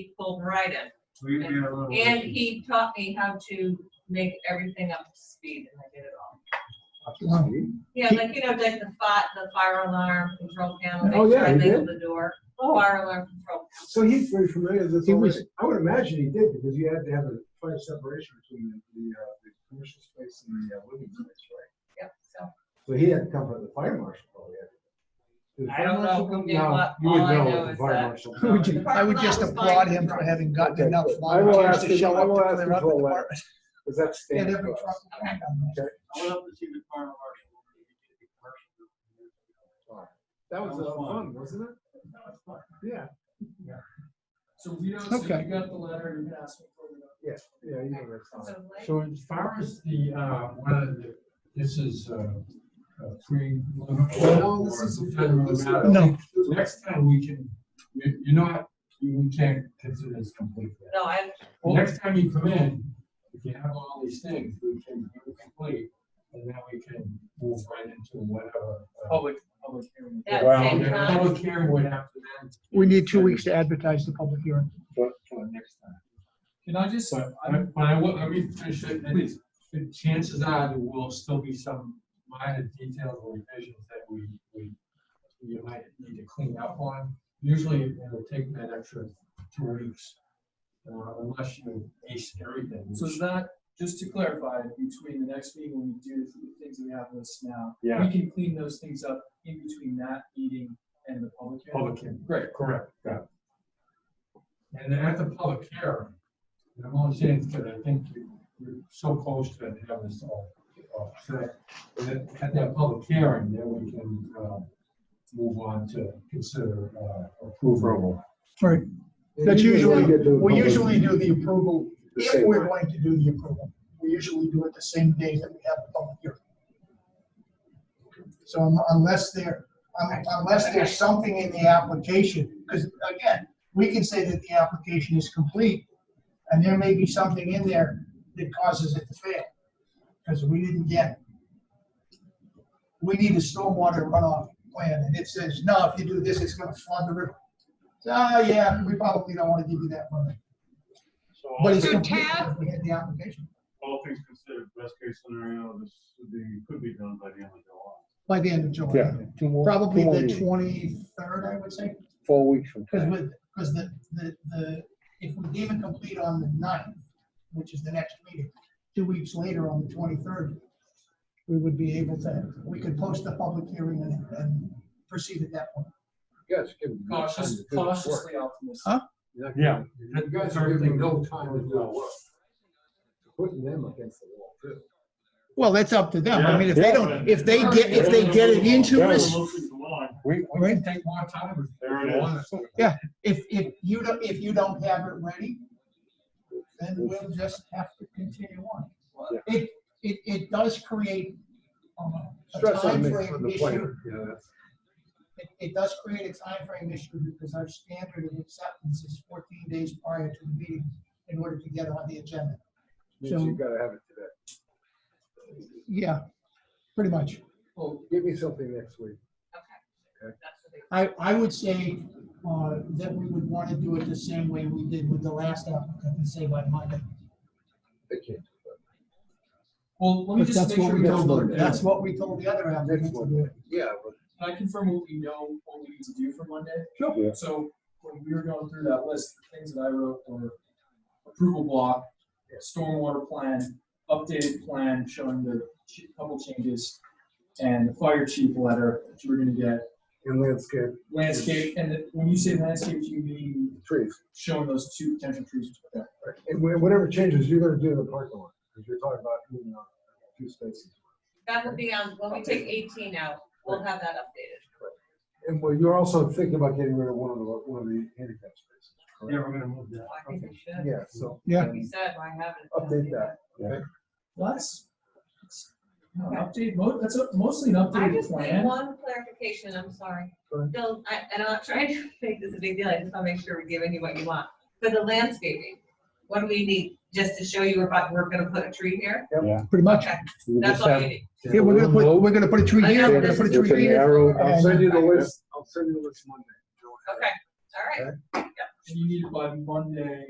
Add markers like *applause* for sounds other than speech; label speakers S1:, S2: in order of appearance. S1: he pulled right in.
S2: We we had a little.
S1: And he taught me how to make everything up to speed and I did it all. Yeah, like, you know, like the fi, the fire alarm control panel,
S3: Oh,
S1: make sure
S3: yeah,
S1: I
S3: he Oh.
S1: label the door, fire alarm control.
S3: So he's very familiar with this
S4: He was-
S3: already. I would imagine he did, because you had to have a fire separation between the, the, uh, the commercial space and the uh, living space, right?
S1: Yep, so.
S3: So he had to come from the fire marshal probably. had to. Did the
S1: I
S3: fire
S1: don't know
S3: marshal
S1: who
S3: come?
S1: did
S3: No,
S1: what.
S3: You would
S1: All I
S3: know
S1: know
S3: if
S1: is
S3: the fire
S1: that-
S3: marshal.
S4: I would ju- I would just applaud him for having gotten enough
S3: I will
S4: volunteers
S3: ask
S4: to
S3: him-
S4: show
S3: I
S4: up
S3: will
S4: to
S3: ask
S4: clear out the
S3: Joel that.
S4: department.
S3: Does that
S4: And
S3: stand
S4: every
S3: for
S4: truck.
S3: us?
S2: I went up to see the fire marshal. when he did the commercial.
S3: That was a lot of
S2: That was
S3: fun, wasn't it? Yeah,
S5: So we don't, so
S4: Okay.
S5: you got the letter and you asked me for it.
S3: yeah, yeah, you know, that's fun.
S1: So like-
S6: So as far as the, uh, whether the- this is, uh, uh, free.
S3: No, this is-
S6: It doesn't really matter.
S4: No.
S6: Next time we can, you, you know, what? we can't consider this complete. yet.
S1: No, I,
S6: Well, next time you come in, if you have all these things, we can do complete, and then we can move right into whatever. uh,
S5: Oh,
S2: Public, public hearing.
S1: at the
S6: well,
S1: same
S6: the
S1: time,
S6: Public hearing would have to then.
S4: We need two weeks to advertise the public hearing.
S6: For, for next time.
S2: Can I just,
S6: But I, but I will, let me finish it, and it's- the chances are there will still be some minor details or revisions that we, we, you might need to clean up on. Usually it'll take that extra two weeks, uh, unless you ace everything.
S5: So is that, just to clarify, between the next meeting when we do the things that we have listed now,
S6: Yeah.
S5: we can clean those things up in between that meeting and the public hearing?
S6: Public hearing, great, correct, got it. And then at the public hearing, and I'm only saying because I think you- you're so close to having this all, all set. And then At that public hearing, then we can, uh, move on to consider, uh, approval.
S4: Right.
S3: Yeah,
S4: That's
S3: you usually
S4: usually,
S3: get the
S4: we
S3: public-
S4: usually do the approval,
S3: The
S4: if
S3: same
S4: we're
S3: way.
S4: going to do the approval. We usually do it the same day that we have the public hearing. So un- unless there, un- unless there's something in the application, because again, we can say that the application is complete, and there may be something in there that causes it to fail, because we didn't get. We need a stormwater runoff plan, and it says, no, if you do this, it's gonna flood the river. So, ah, yeah, we probably don't wanna give you that money.
S2: So all,
S4: But it's
S7: So
S4: complete,
S7: Tab-
S4: we had the application.
S2: all things considered, best case scenario, this would be- could be done by the end of July.
S4: By the end of July,
S8: Two more.
S4: probably
S8: two more
S4: the
S8: meetings.
S4: twenty-third, I would say,
S8: Four weeks from
S4: because
S8: today.
S4: with, because the, the, the, if we gave it complete on the 9th, which is the next meeting, two weeks later on the twenty-third, we would be able to, we could post the public hearing and, and proceed at that point.
S3: You guys give them time to
S5: Cautious,
S3: do the work.
S5: cautiously optimistic.
S4: Huh?
S3: You're not-
S6: Yeah.
S3: You guys are giving no time to do the work. Putting them against the wall too.
S4: Well, that's up to them.
S2: I mean, if they
S8: don't-
S4: if
S2: they
S8: get- if they
S4: get it into
S8: us-
S6: We, we can take more time if
S2: There
S6: you
S2: it is.
S6: want us to.
S4: Yeah. If, if you don't, if you don't have it ready, then we'll just have to continue on. It, it, it does create um, a
S3: Stress on me
S4: timeframe
S3: on the
S4: issue.
S3: player. Yeah, that's.
S4: It, it does create a time frame issue because our standard of acceptance is fourteen days prior to the meeting in order to get on the agenda.
S3: Means you gotta have it today.
S4: Yeah, pretty much.
S5: Well,
S3: Give me something next week.
S1: that's what they-
S4: I, I would say, uh, that we would want to do it the same way we did with the last applicant and say by Monday.
S3: I can't.
S5: well, let me
S4: But
S5: just
S4: that's
S5: make
S4: what
S5: sure
S4: we
S5: we
S3: That's
S5: know,
S3: what
S4: told,
S3: we're
S4: that's
S3: doing.
S4: what we told the other applicant
S3: Next
S4: to
S3: one.
S4: do.
S3: Yeah, but
S5: can I confirm what we know, what we need to do for Monday?
S8: Yeah.
S5: So when we were going through that list, the things that I wrote were approval block, stormwater plan, updated plan showing the ch- couple changes, and the fire chief letter that you were gonna get,
S3: in landscape,
S5: landscape, and the- when you say landscape, you mean
S3: trees,
S5: showing those two potential trees. Okay.
S3: right? and wha- whatever changes you're gonna do in the parking lot, because you're talking about, you know, a few spaces.
S1: That would be on, when we take eighteen out, we'll have that updated.
S3: And well, you're also thinking about getting rid of one of the, one of the handicap spaces.
S6: Yeah,
S3: correct?
S6: we're gonna move that.
S1: I think we should.
S3: Yeah, so.
S4: Yeah.
S1: Like you said, why haven't? it?
S3: Update that.
S5: Well, that's, that's- no, an update, mo- that's a- mostly an
S1: I
S5: updated
S1: just need
S5: plan.
S1: one clarification, I'm sorry.
S3: Go ahead.
S1: Bill, I, and I'm not trying to *laughs* make this a big deal, I just want to make sure we're giving you what you want. For the landscaping, what do we need? Just to show you we're about, we're gonna put a tree here?
S4: Pretty much.
S1: Okay,
S8: You
S1: that's
S8: just
S1: all
S8: have
S1: you need.
S4: Yeah, we're gonna put, we're gonna put a tree
S1: I
S4: here,
S1: know
S4: we're gonna
S1: this
S4: put a
S1: is-
S8: With
S4: tree
S8: an
S4: here.
S8: arrow
S3: I'll send you the
S1: Okay.
S3: list, I'll send you the list Monday. Joe.
S1: Okay, all right.
S3: Okay.
S1: Yep,
S5: and you need it by Monday